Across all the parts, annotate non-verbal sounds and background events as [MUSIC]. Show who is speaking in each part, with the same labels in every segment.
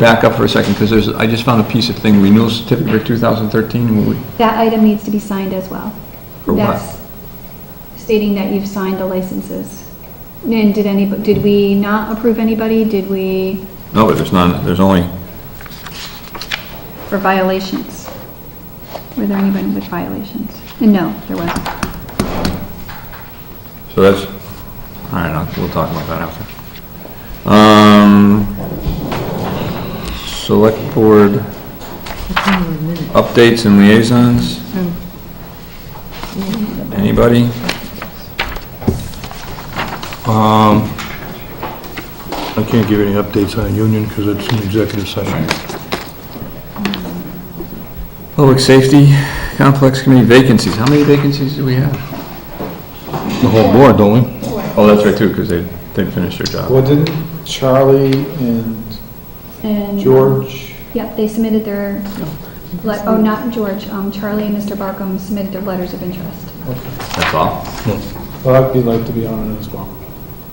Speaker 1: Back up for a second, because there's, I just found a piece of thing, renewal certificate for 2013, and we,
Speaker 2: That item needs to be signed as well.
Speaker 1: For what?
Speaker 2: That's Stating that you've signed the licenses. And did any, did we not approve anybody? Did we,
Speaker 1: no, there's none, there's only,
Speaker 2: for violations? Were there anybody with violations? And no, there wasn't.
Speaker 1: so that's, all right, I'll- we'll talk about that after. Um, select board updates and liaisons? Anybody?
Speaker 3: Um, I can't give any updates on union because it's an executive session.
Speaker 1: Public Safety Complex Committee vacancies, how many vacancies do we have?
Speaker 3: The whole board, don't we?
Speaker 1: Oh, that's right, too, because they, they finished their job.
Speaker 4: Well, didn't Charlie and
Speaker 2: And, um,
Speaker 4: George,
Speaker 2: Yep, they submitted their, le- oh, not George, um, Charlie and Mr. Barkum submitted their letters of interest.
Speaker 1: That's all?
Speaker 4: well, I'd be like to be on it as well.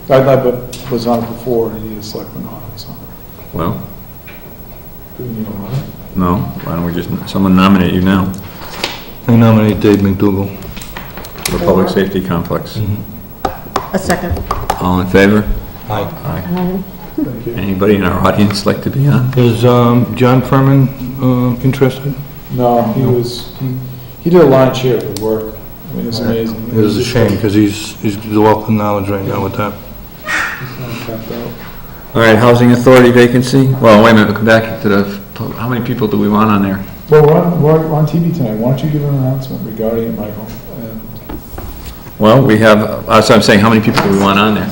Speaker 4: I, I was on it before, and he was selectman on it, so.
Speaker 1: Well,
Speaker 4: Do we need a letter?
Speaker 1: no, why don't we just, someone nominate you now
Speaker 3: I nominate Dave McDougal.
Speaker 1: for Public Safety Complex.
Speaker 5: A second.
Speaker 1: All in favor?
Speaker 3: Aye. [LAUGHS]
Speaker 4: Thank you.
Speaker 1: Anybody in our audience like to be on?
Speaker 3: Is um, John Furman um, interested?
Speaker 4: No, he was, he, he did a lion's share of the work. I mean, it's amazing.
Speaker 3: It is a shame because he's, he's the wealth of knowledge right now with that.
Speaker 1: All right, Housing Authority vacancy? Well, wait a minute, we'll come back to the, how many people do we want on there?
Speaker 4: Well, we're on, we're on TV tonight. Why don't you give an announcement regarding it, Michael? And
Speaker 1: Well, we have, that's what I'm saying, how many people do we want on there?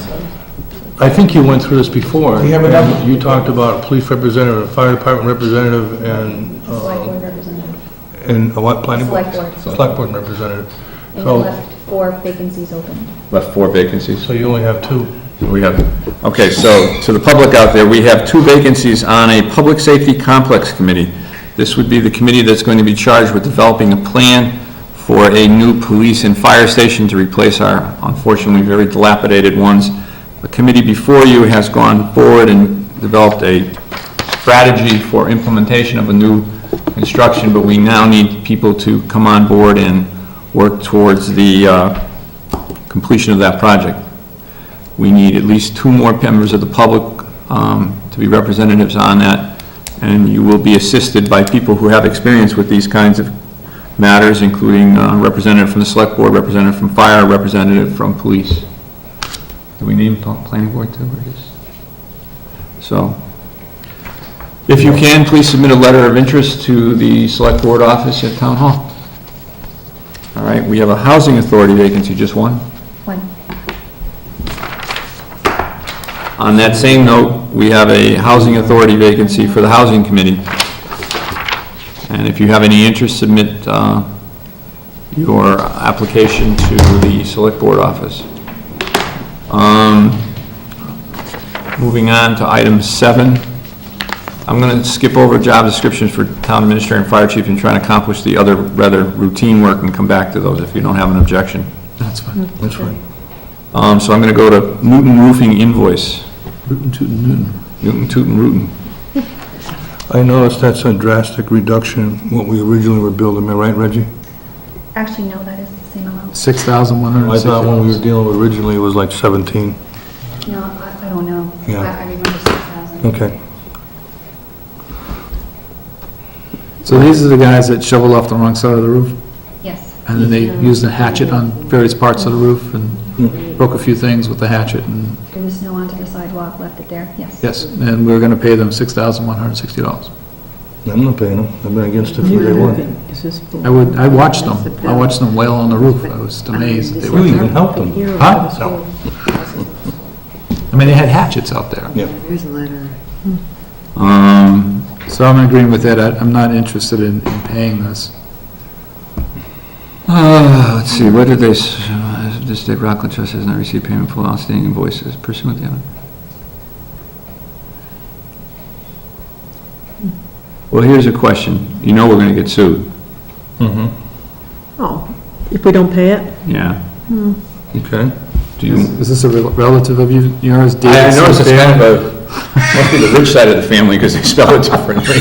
Speaker 3: I think you went through this before.
Speaker 4: We have enough-
Speaker 3: You talked about a police representative, a fire department representative, and,
Speaker 5: Select
Speaker 3: uh,
Speaker 5: board representative.
Speaker 3: and a what, planning board?
Speaker 5: Select board.
Speaker 3: Select board representative.
Speaker 5: And you
Speaker 3: So,
Speaker 5: left four vacancies open.
Speaker 1: Left four vacancies.
Speaker 3: so you only have two.
Speaker 1: We have, okay, so to the public out there, we have two vacancies on a Public Safety Complex Committee. This would be the committee that's going to be charged with developing a plan for a new police and fire station to replace our unfortunately very dilapidated ones. The committee before you has gone forward and developed a strategy for implementation of a new construction, but we now need people to come on board and work towards the uh, completion of that project. We need at least two more members of the public um, to be representatives on that, and you will be assisted by people who have experience with these kinds of matters, including uh, representative from the select board, representative from fire, representative from police. Do we name pl- planning board too, or just? So, if you can, please submit a letter of interest to the select board office at town hall. All right, we have a housing authority vacancy, just one.
Speaker 5: One.
Speaker 1: On that same note, we have a housing authority vacancy for the housing committee. And if you have any interest, submit uh, your application to the select board office. Um, Moving on to item seven. I'm going to skip over job descriptions for town administrator and fire chief and try and accomplish the other rather routine work and come back to those if you don't have an objection.
Speaker 3: That's fine. That's fine.
Speaker 1: Um, So I'm going to go to Newton Roofing invoice.
Speaker 3: Rootin' tootin' tootin'.
Speaker 1: Newton, Tootin, Rootin.
Speaker 3: I noticed that's a drastic reduction in what we originally were building, am I right, Reggie?
Speaker 5: Actually, no, that is the same amount.
Speaker 4: Six thousand one
Speaker 3: I thought when we were dealing with originally, it was like 17.
Speaker 5: No, I I don't know.
Speaker 3: Yeah.
Speaker 5: I I remember 6,000.
Speaker 3: Okay.
Speaker 6: So these are the guys that shovel off the wrong side of the roof,
Speaker 5: Yes.
Speaker 6: and then they used a hatchet on various parts of the roof
Speaker 1: Hmm.
Speaker 6: and broke a few things with the hatchet, and,
Speaker 5: There was snow onto the sidewalk, left it there, yes.
Speaker 6: yes, and we're gonna pay them $6,160.
Speaker 3: I'm not paying them. I've been against it from day one.
Speaker 6: I would, I watched them, I watched them wail on the roof, I was amazed that they were
Speaker 1: Hmm.
Speaker 3: You even
Speaker 6: there.
Speaker 3: helped them.
Speaker 6: Huh? I mean, they had hatchets out there.
Speaker 3: Yeah.
Speaker 7: Here's a letter.
Speaker 1: Um,
Speaker 6: So I'm agreeing with Ed, I- I'm not interested in in paying this.
Speaker 1: uh, let's see, what did they, s- uh, this state Rockland Trust has not received payment for outstanding invoices pursuant to. Well, here's a question. You know we're gonna get sued.
Speaker 3: Mm-hmm.
Speaker 7: Oh, if we don't pay it?
Speaker 1: Yeah.
Speaker 3: Okay.
Speaker 1: Do you?
Speaker 6: Is is this a rel- relative of you- yours, David
Speaker 1: Hmm. I noticed it's
Speaker 6: Sinclair?
Speaker 1: kind of Must be the rich side of the family because they spell it [LAUGHS] differently.